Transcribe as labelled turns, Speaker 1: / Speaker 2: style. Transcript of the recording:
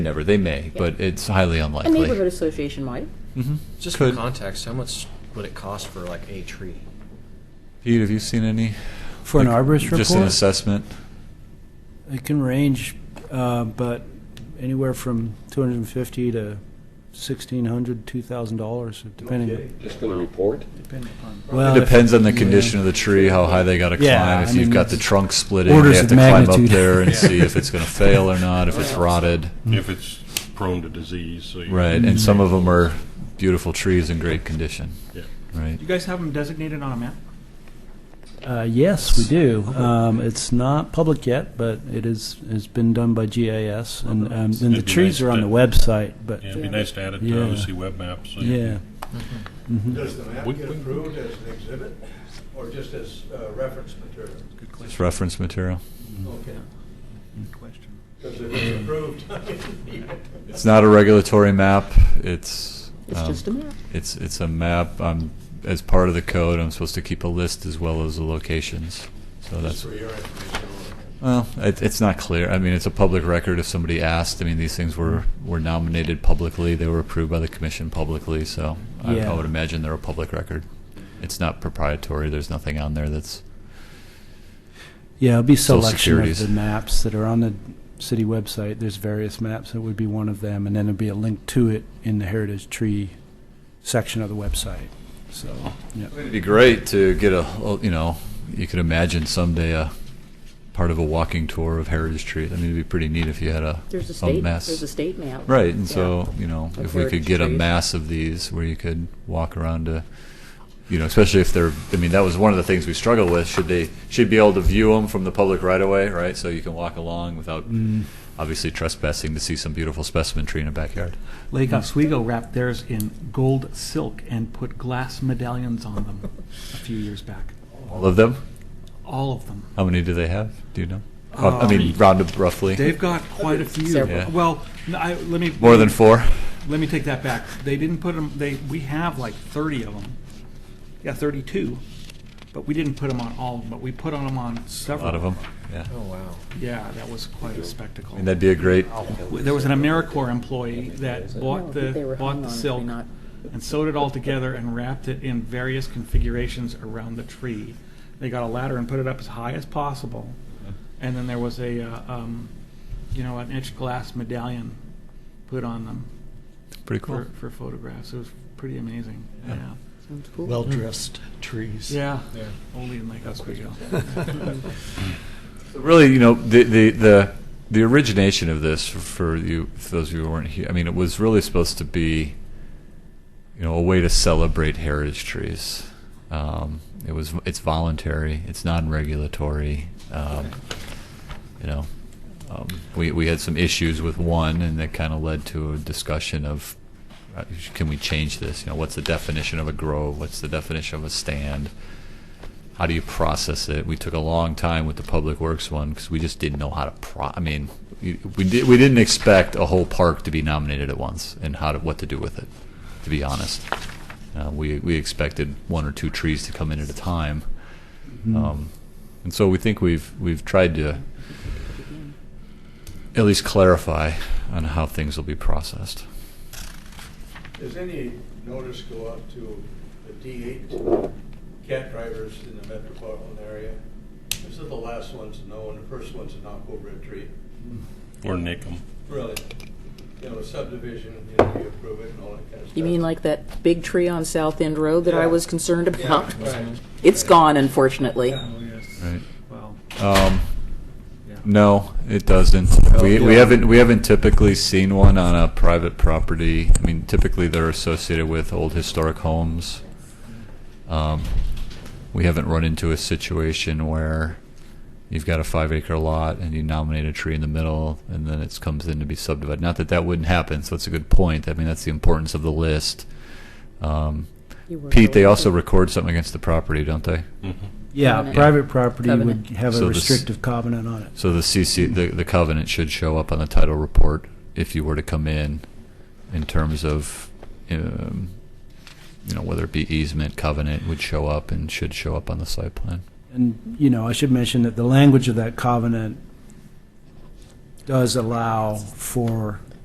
Speaker 1: Never. They may, but it's highly
Speaker 2: A
Speaker 1: unlikely.
Speaker 2: neighborhood association might.
Speaker 1: Mhm.
Speaker 3: Just
Speaker 1: Could.
Speaker 3: for context, how much would it cost for like a tree?
Speaker 1: Pete, have you seen any?
Speaker 4: For an
Speaker 1: Like,
Speaker 4: arborist
Speaker 1: Just an
Speaker 4: report?
Speaker 1: assessment?
Speaker 4: It can range, uh, but anywhere from 250 to 1,600, 2,000 dollars,
Speaker 5: Okay,
Speaker 4: depending.
Speaker 5: Just gonna report?
Speaker 6: Depending upon.
Speaker 4: Well,
Speaker 1: It depends on the
Speaker 4: Uh, yeah.
Speaker 1: condition of the tree, how high they gotta
Speaker 4: Yeah,
Speaker 1: climb.
Speaker 4: I
Speaker 1: If you've
Speaker 4: mean,
Speaker 1: got the
Speaker 4: it's
Speaker 1: trunk splitting, they
Speaker 4: orders
Speaker 1: have
Speaker 4: of
Speaker 1: to climb up
Speaker 4: magnitude.
Speaker 1: there and
Speaker 4: Yeah.
Speaker 1: see if it's gonna fail or not, if it's rotted.
Speaker 5: If it's prone to disease, so you.
Speaker 1: Mm. Right, and some of them are beautiful trees in great condition,
Speaker 5: Yeah.
Speaker 1: right?
Speaker 6: Do you guys have them designated on a map?
Speaker 4: Uh, yes, we do. Um, it's not public yet, but it is, has been done by GIS, and, um, and the
Speaker 5: It'd be
Speaker 4: trees
Speaker 5: nice
Speaker 4: are on
Speaker 5: to-
Speaker 4: the website, but,
Speaker 5: Yeah, it'd be nice to add it
Speaker 4: Yeah.
Speaker 5: to OC web maps. so you
Speaker 4: yeah. Mm-hmm.
Speaker 7: Does the map
Speaker 5: We-
Speaker 7: get
Speaker 5: we-
Speaker 7: approved as an exhibit or just as uh, reference material?
Speaker 1: It's reference material.
Speaker 7: Okay,
Speaker 6: Good question.
Speaker 7: because if it's approved, I need it.
Speaker 1: It's not a regulatory map, it's.
Speaker 2: It's
Speaker 1: um,
Speaker 2: just a map.
Speaker 1: It's, it's a map, um, as part of the code, I'm supposed to keep a list as well as the locations, so Oh,
Speaker 7: Just
Speaker 1: that's.
Speaker 7: for your information.
Speaker 1: Well, it, it's not clear. I mean, it's a public record if somebody asked. I mean, these things were, were nominated publicly, they were approved by the commission publicly, so I,
Speaker 4: Yeah.
Speaker 1: I would imagine they're a public record. It's not proprietary, there's nothing on there that's.
Speaker 4: Yeah, it'll be
Speaker 1: Social
Speaker 4: selection of
Speaker 1: Securities.
Speaker 4: the maps that are on the city website. There's various maps. It would be one of them, and then it'd be a link to it in the heritage tree section of the website. So, yeah.
Speaker 1: It'd be great to get a, you know, you could imagine someday a part of a walking tour of Heritage Street. I mean, it'd be pretty neat if you had a,
Speaker 2: There's a
Speaker 1: a
Speaker 2: state,
Speaker 1: mass.
Speaker 2: there's a state map.
Speaker 1: Right, and
Speaker 2: Yeah.
Speaker 1: so, you know,
Speaker 2: Of
Speaker 1: if we could
Speaker 2: heritage
Speaker 1: get a
Speaker 2: trees.
Speaker 1: mass of these where you could walk around to, you know, especially if they're, I mean, that was one of the things we struggled with. Should they, should be able to view them from the public right away, right? So you can walk along without
Speaker 2: Mm.
Speaker 1: obviously trespassing to see some beautiful specimen tree in a backyard.
Speaker 6: Lake Oswego wrapped theirs in gold silk and put glass medallions on them a few years back.
Speaker 1: All of them?
Speaker 6: All of them.
Speaker 1: How many do they have? Do you know? Rough- I
Speaker 6: Um,
Speaker 1: mean, round up roughly.
Speaker 6: They've got quite a few.
Speaker 2: Several.
Speaker 1: Yeah.
Speaker 6: Well, n- I, let me.
Speaker 1: More than four?
Speaker 6: Let me take that back. They didn't put them, they, we have like 30 of them. Yeah, 32, but we didn't put them on all of them, but we put on them on
Speaker 1: A
Speaker 6: several.
Speaker 1: lot of them, yeah.
Speaker 3: Oh wow!
Speaker 6: Yeah, that was quite a spectacle.
Speaker 1: I mean, that'd be a great,
Speaker 6: There was an AmeriCorps employee that
Speaker 2: No, I
Speaker 6: bought
Speaker 2: think they were
Speaker 6: the, bought
Speaker 2: hung
Speaker 6: the
Speaker 2: on if they
Speaker 6: silk
Speaker 2: not-
Speaker 6: and sewed it all together and wrapped it in various configurations around the tree. They got a ladder and put it up as high as possible. And then there was a, uh, um, you know, an etched glass medallion put on them
Speaker 1: pretty cool.
Speaker 6: for, for photographs. It was pretty amazing,
Speaker 1: Yeah.
Speaker 6: yeah.
Speaker 2: Sounds cool.
Speaker 8: well-dressed trees.
Speaker 6: Yeah, only in Lake Oswego.
Speaker 1: Really, you know, the the the, the origination of this for you, for those of you who weren't here, I mean, it was really supposed to be, you know, a way to celebrate heritage trees. Um, it was it's voluntary, it's non-regulatory. Um, you know, um, we we had some issues with one, and that kind of led to a discussion of. uh, Can we change this? You know, what's the definition of a grove? What's the definition of a stand? how do you process it? We took a long time with the public works one because we just didn't know how to pro. I mean, we we, did, we didn't expect a whole park to be nominated at once and how to what to do with it. To be honest, uh, we we expected one or two trees to come in at a time,
Speaker 4: Mm.
Speaker 1: um, and so we think we've we've tried to at least clarify on how things will be processed.
Speaker 7: Does any notice go out to the D eight cat drivers in the metropolitan area? These are the last ones to know and the first ones to knock over a tree.
Speaker 5: Hmm. Or nick 'em.
Speaker 7: Really, you know, subdivision, you know, you approve it and all that kind of stuff.
Speaker 2: You mean like that big tree on South End Road that I
Speaker 7: Yeah.
Speaker 2: was concerned about?
Speaker 7: Yeah, right.
Speaker 2: It's gone, unfortunately.
Speaker 7: Yeah.
Speaker 1: Right.
Speaker 6: Oh, Well,
Speaker 1: Um,
Speaker 6: yeah.
Speaker 1: No, it doesn't. We, we
Speaker 7: yeah.
Speaker 1: haven't, we haven't typically seen one on a private property. I mean, typically they're associated with old historic homes. Um, We haven't run into a situation where you've got a five acre lot and you nominate a tree in the middle and then it comes in to be subdivided. Not that that wouldn't happen, so it's a good point. I mean, that's the importance of the list. Um,
Speaker 2: You were
Speaker 1: Pete, they
Speaker 2: right.
Speaker 1: also record something against the property, don't they?
Speaker 4: Yeah,
Speaker 2: Covenant.
Speaker 4: private property
Speaker 2: Covenant.
Speaker 4: would have
Speaker 1: So
Speaker 4: a
Speaker 1: this-
Speaker 4: restrictive covenant on it.
Speaker 1: So the CC, the, the covenant should show up on the title report if you were to come in, in terms of, um, you know, whether it be easement, covenant would show up and should show up on the site plan.
Speaker 4: And, you know, I should mention that the language of that covenant does allow for